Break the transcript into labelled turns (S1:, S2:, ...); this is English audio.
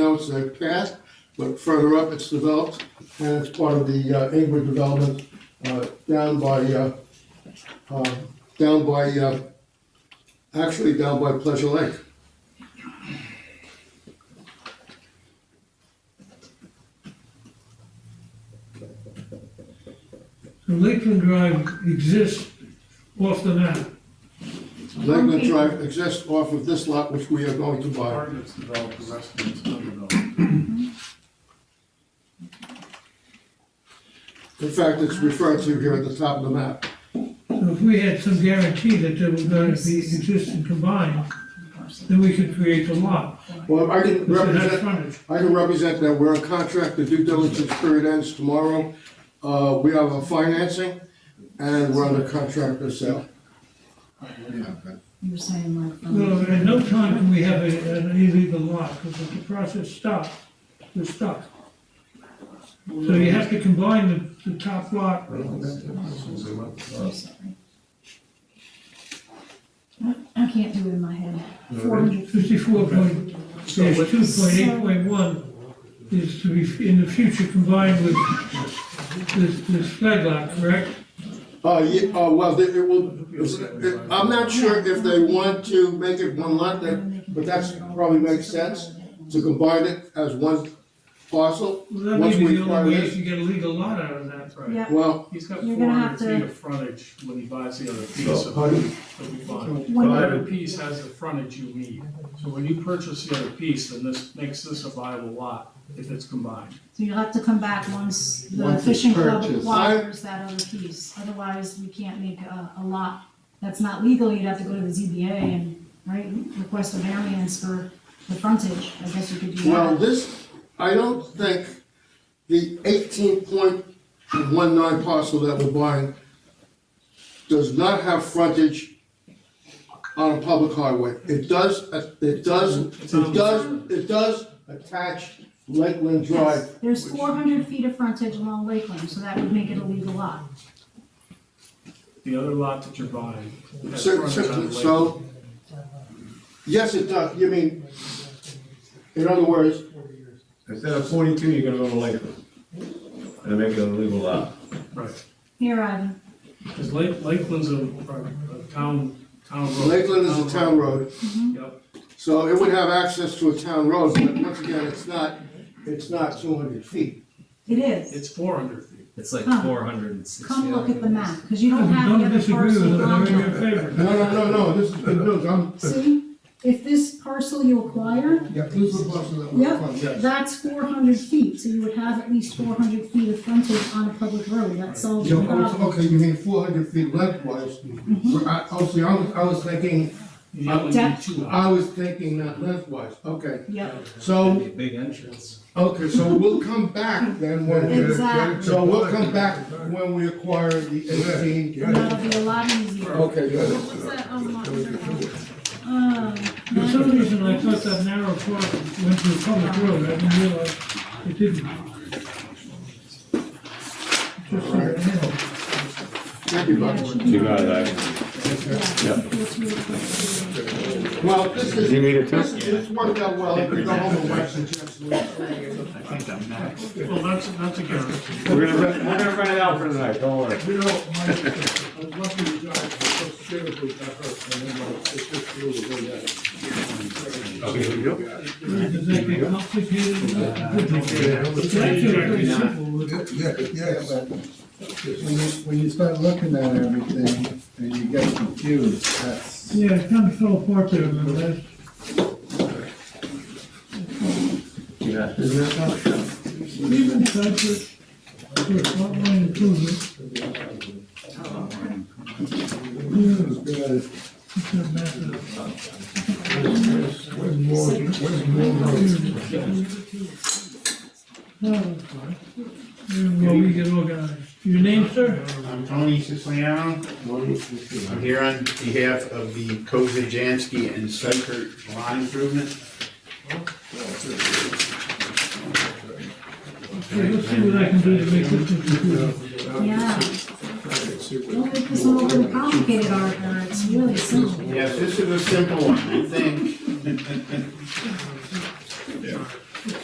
S1: notes that passed, but further up, it's developed, and it's part of the uh, Inglewood development uh, down by, uh, uh, down by, uh, actually down by Pleasure Lake.
S2: So Lakeland Drive exists off the map.
S1: Lakeland Drive exists off of this lot, which we are going to buy.
S3: Apartments developed, the rest of it's undeveloped.
S1: In fact, it's referred to here at the top of the map.
S2: So if we had some guarantee that there were going to be existing combined, then we could create the lot.
S1: Well, I didn't
S2: Because it has
S1: represent,
S2: frontage.
S1: I can represent that we're in contract, the due diligence period ends tomorrow. Uh, we have a financing and we're under contract to sell.
S4: You were saying like. um,
S2: Well, at no time can we have a- an illegal lot, because if the process stops, we're stuck. So you have to combine the, the top lot.
S4: I'm sorry. I I can't do it in my head. Four hundred,
S2: Fifty-four point,
S3: So
S2: dash
S3: what-
S2: two point eight point one is to be, in the future, combined with this, this flag lot, correct?
S1: Uh, yeah, uh, well, they- it will, it- I'm not sure if they want to make it one lot, that- but that's probably makes sense to combine it as one parcel.
S2: Well,
S1: Once
S2: that may be
S1: we
S2: the
S1: acquire
S2: only way
S1: this-
S2: to get a legal lot out of that.
S4: yeah,
S1: Well,
S3: He's got
S4: You're
S3: four
S4: gonna have
S3: hundred feet
S4: to-
S3: of frontage when he buys the other piece of
S1: pardon?
S3: that we bought.
S4: One-
S3: The other piece has the frontage you need. So when you purchase the other piece, then this makes this a viable lot if it's combined.
S4: so you'll have to come back once the
S5: Once it's
S4: fishing club
S5: purchased.
S4: acquires that other piece. Otherwise, we can't make a, a lot that's not legal, you'd have to go to the ZBA and, right, request a variance for the frontage, I guess you could do
S1: well,
S4: that.
S1: this, I don't think the eighteen point one nine parcel that we're buying does not have frontage on a public highway. It does, it does, it does, it does attach Lakeland Drive.
S4: There's four hundred feet of frontage along Lakeland, so that would make it a legal lot.
S3: The other lot that you're buying has
S1: So,
S3: frontage on the
S1: so-
S3: lake.
S1: so, yes, it does, you mean, in other words,
S5: Instead of forty-two, you're gonna go to Lakeland. And make it uh, a legal lot.
S3: Right,
S4: Here, Ivan,
S3: because Lake, Lakeland's a, a town, town road.
S1: Lakeland is a town road,
S3: Yep,
S1: so it would have access to a town road, but once again, it's not, it's not two hundred feet.
S4: it is.
S3: it's four hundred feet.
S6: It's like
S4: Come.
S6: four hundred and sixty.
S4: Come look at the map, because you don't have the
S2: Don't
S4: other
S2: disagree with it,
S4: parcel
S2: I'm
S4: on
S2: in your
S4: here.
S2: favor.
S1: No, no, no, no, this is good news, I'm.
S4: See, if this parcel you acquire,
S1: Yeah, this is the parcel that
S4: Yeah.
S1: funding.
S3: Yes.
S4: that's four hundred feet, so you would have at least four hundred feet of frontage on a public road, that solves
S1: Yeah,
S4: your
S1: oh, it's-
S4: problem.
S1: okay, you mean four hundred feet lengthwise, Well, I, oh, see, I was, I was thinking,
S3: You only need
S4: Depth.
S3: two lots.
S1: I was thinking not lengthwise, okay.
S4: Yep,
S1: So,
S6: Big entrance.
S1: okay, so we'll come back then when we're.
S4: exactly,
S1: So we'll come back when we acquire the eighteen.
S4: and that'll be a lot easier.
S2: Oh.
S4: What-
S1: Okay, good.
S4: What's that on lot under one? Um,
S2: For some reason, I thought that narrow park went to a public road, I didn't realize it didn't. Just like a hill.
S1: Thank you,
S4: Um, yeah, it
S1: Buck.
S4: should be-
S7: that.
S4: Yeah, it's really close.
S1: Well, this is.
S7: You need it too?
S1: This is- It's worked out well. You can go home and watch the Jets lose.
S3: Well, that's, that's a guarantee.
S7: We're gonna, run- we're gonna run it out for tonight, don't worry.
S3: You know, my, I was lucky to drive, so seriously, got hurt, and then like, it just blew the wind out.
S2: Does that get complicated? It's actually pretty simple.
S8: Yeah, yeah, but when you, when you start looking at everything and you get confused, that's,
S2: Yeah, it kind of fell apart there, remember that?
S6: Yeah.
S2: Even such a, for a lot line improvement,
S8: it's good.
S2: it doesn't matter.
S8: Where's more, where's more roads?
S2: No, that's fine. Oh, Well, we get organized. Your name, sir?
S9: I'm Tony Siciliano. I'm here on behalf of the Kozajansky and Sykert Lawn Improvement.
S2: Okay, let's see what I can do to make this interesting.
S4: Yeah. Don't make this all complicated, Arthur, it's really simple.
S9: Yes, this is a simple one, I think.